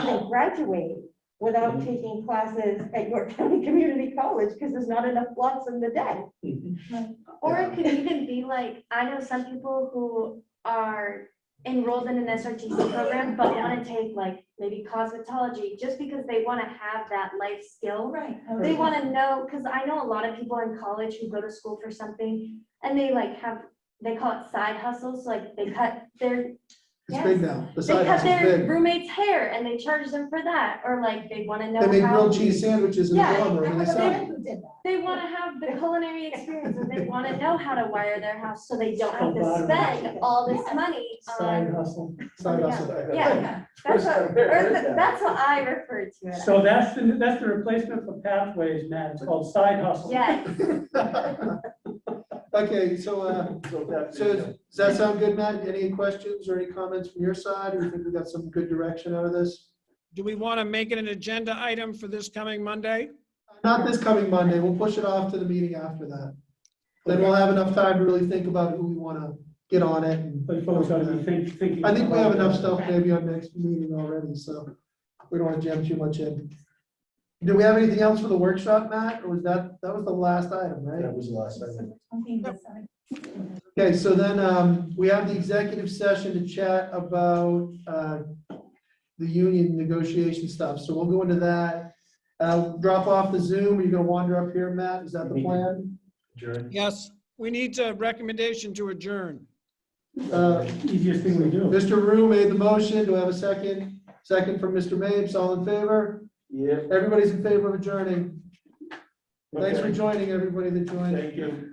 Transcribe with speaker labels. Speaker 1: graduate without
Speaker 2: Mhm.
Speaker 1: taking classes at York County Community College because there's not enough blocks in the day.
Speaker 3: Or
Speaker 2: Yeah.
Speaker 3: it could even be like, I know some people who are enrolled in an SRTC program, but want to take like maybe cosmetology, just because they want to have that life skill.
Speaker 4: Right.
Speaker 3: They want to know, because I know a lot of people in college who go to school for something and they like have, they call it side hustles, like they cut their,
Speaker 2: It's big now. The
Speaker 3: they
Speaker 2: side
Speaker 3: cut
Speaker 2: hustle's
Speaker 3: their
Speaker 2: big.
Speaker 3: roommate's hair and they charge them for that, or like they want to know
Speaker 2: They make
Speaker 3: how.
Speaker 2: grilled cheese sandwiches in the
Speaker 3: Yeah,
Speaker 2: dorm room and they sell them.
Speaker 3: They want to have the culinary experience and they want to know how to wire their house so they don't have to
Speaker 5: Bottom
Speaker 3: spend all this money
Speaker 5: Side
Speaker 3: on.
Speaker 5: hustle.
Speaker 2: Side hustle.
Speaker 3: Yeah. That's what,
Speaker 2: I've never
Speaker 3: or
Speaker 2: heard
Speaker 3: th-
Speaker 2: that.
Speaker 3: that's what I refer to it.
Speaker 5: So that's the, that's the replacement for pathways, Matt, it's called side hustle.
Speaker 3: Yes,
Speaker 2: Okay, so, uh, so does that sound good, Matt? Any questions or any comments from your side? Or you think we got some good direction out of this?
Speaker 6: Do we want to make it an agenda item for this coming Monday?
Speaker 2: Not this coming Monday. We'll push it off to the meeting after that. Then we'll have enough time to really think about who we want to get on it. and-
Speaker 5: But folks ought to be think- thinking.
Speaker 2: I think we have enough stuff
Speaker 5: about-
Speaker 2: maybe on next meeting already, so we don't want to jam too much in. Do we have anything else for the workshop, Matt? Or was that, that was the last item, right?
Speaker 7: That was the last item.
Speaker 2: Okay, so then um, we have the executive session to chat about uh, the union negotiation stuff. So we'll go into that. Uh, Drop off the Zoom. Are you going to wander up here, Matt? Is that the plan?
Speaker 7: Adjourn.
Speaker 6: Yes, we need a recommendation to adjourn.
Speaker 2: Uh,
Speaker 5: Easiest thing we do.
Speaker 2: Mr. Rue made the motion. Do I have a second? Second from Mr. Mapes. All in favor?
Speaker 7: Yeah.
Speaker 2: Everybody's in favor of adjourning. Thanks for
Speaker 7: Okay.
Speaker 2: joining, everybody that joined.
Speaker 7: Thank you.